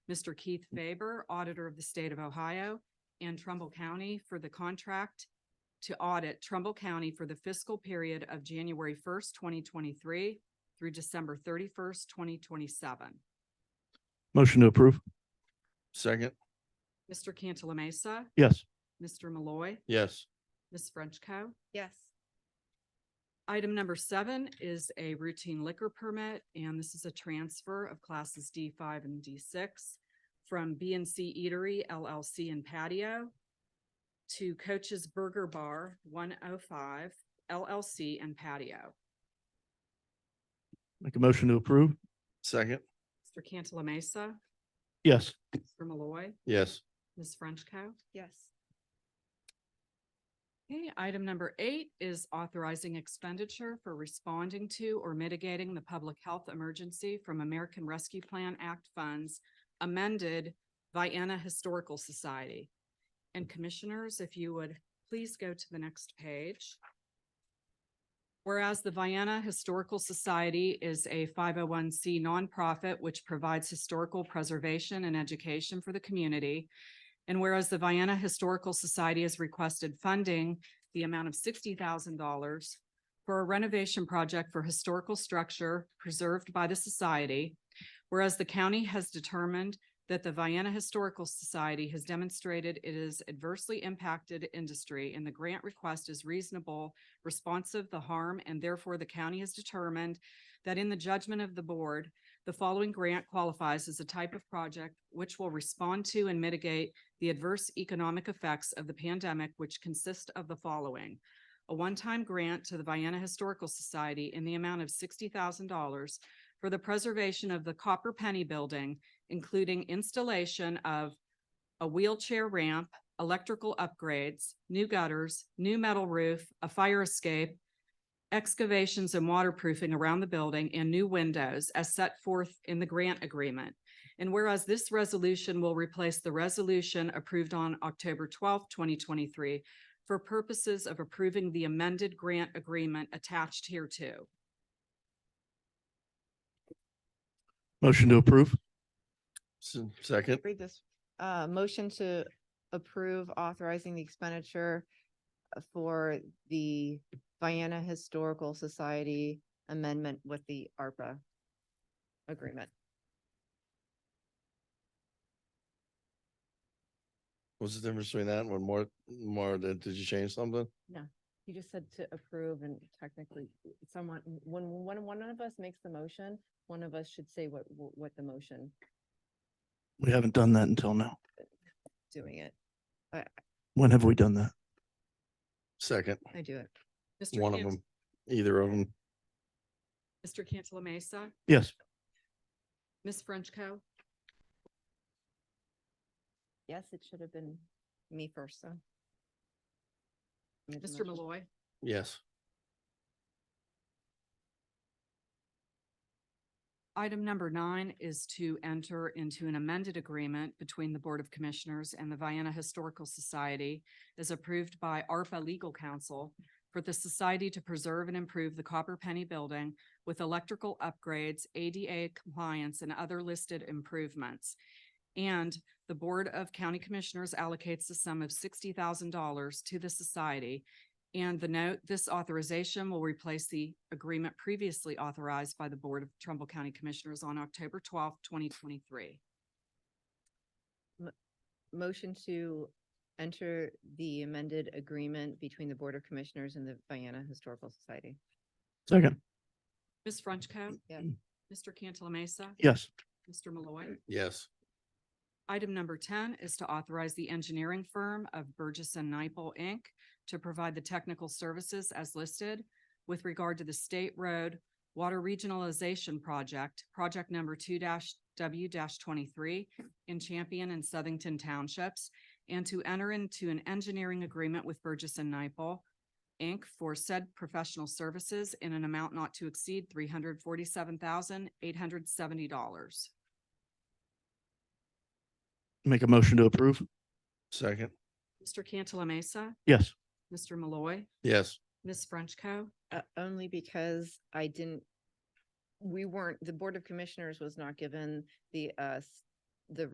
Mr. Keith Faber, Auditor of the State of Ohio, and Trumbull County for the contract to audit Trumbull County for the fiscal period of January first, twenty twenty-three through December thirty-first, twenty twenty-seven. Motion to approve. Second. Mr. Cantala Mesa, Yes. Mr. Malloy, Yes. Ms. Frenchco. yes, Item number seven is a routine liquor permit, and this is a transfer of classes D five and D six from B and C Eatery LLC and Patio to Coach's Burger Bar one oh five LLC and Patio. Make a motion to approve. Second. Mr. Cantala Mesa, Yes. Mr. Malloy, Yes. Ms. Frenchco. yes, Okay, item number eight is authorizing expenditure for responding to or mitigating the public health emergency from American Rescue Plan Act funds amended Vienna Historical Society. And commissioners, if you would please go to the next page. Whereas the Vienna Historical Society is a five oh one C nonprofit which provides historical preservation and education for the community. And whereas the Vienna Historical Society has requested funding the amount of sixty thousand dollars for a renovation project for historical structure preserved by the society, whereas the county has determined that the Vienna Historical Society has demonstrated it is adversely impacted industry and the grant request is reasonable, responsive to harm, and therefore the county has determined that in the judgment of the board, the following grant qualifies as a type of project which will respond to and mitigate the adverse economic effects of the pandemic, which consist of the following. A one-time grant to the Vienna Historical Society in the amount of sixty thousand dollars for the preservation of the Copper Penny Building, including installation of a wheelchair ramp, electrical upgrades, new gutters, new metal roof, a fire escape, excavations and waterproofing around the building, and new windows as set forth in the grant agreement. And whereas this resolution will replace the resolution approved on October twelfth, twenty twenty-three for purposes of approving the amended grant agreement attached hereto. Motion to approve. Second. read this. Uh, motion to approve authorizing the expenditure uh, for the Vienna Historical Society amendment with the ARPA agreement. What's the difference between that and one more, more, did you change something? You just said to approve and technically someone, when, when one of us makes the motion, one of us should say what, what the motion We haven't done that until now. doing it. When have we done that? Second, I do it. Mr. one of Cant- them, either of them, Mr. Cantala Mesa, Yes. Ms. Frenchco. Yes, it should have been me first, so. Made the Mr. motion. Malloy, yes. Item number nine is to enter into an amended agreement between the Board of Commissioners and the Vienna Historical Society as approved by ARPA Legal Counsel for the society to preserve and improve the Copper Penny Building with electrical upgrades, ADA compliance, and other listed improvements. And the Board of County Commissioners allocates the sum of sixty thousand dollars to the society and the note, this authorization will replace the agreement previously authorized by the Board of Trumbull County Commissioners on October twelfth, twenty twenty-three. Motion to enter the amended agreement between the Board of Commissioners and the Vienna Historical Society. Second. Ms. Frenchco. Yeah. Mr. Cantala Mesa. Yes. Mr. Malloy. Yes, Item number ten is to authorize the engineering firm of Burgess and Nyepel, Inc. to provide the technical services as listed with regard to the State Road Water Regionalization Project, project number two W twenty-three in Champion and Southington Townships, and to enter into an engineering agreement with Burgess and Nyepel, Inc. for said professional services in an amount not to exceed three hundred forty-seven thousand, eight hundred seventy dollars. Make a motion to approve. second, Mr. Cantala Mesa. Yes. Mr. Malloy, yes, Ms. Frenchco. Uh, only because I didn't, we weren't, the Board of Commissioners was not given the, uh, s- the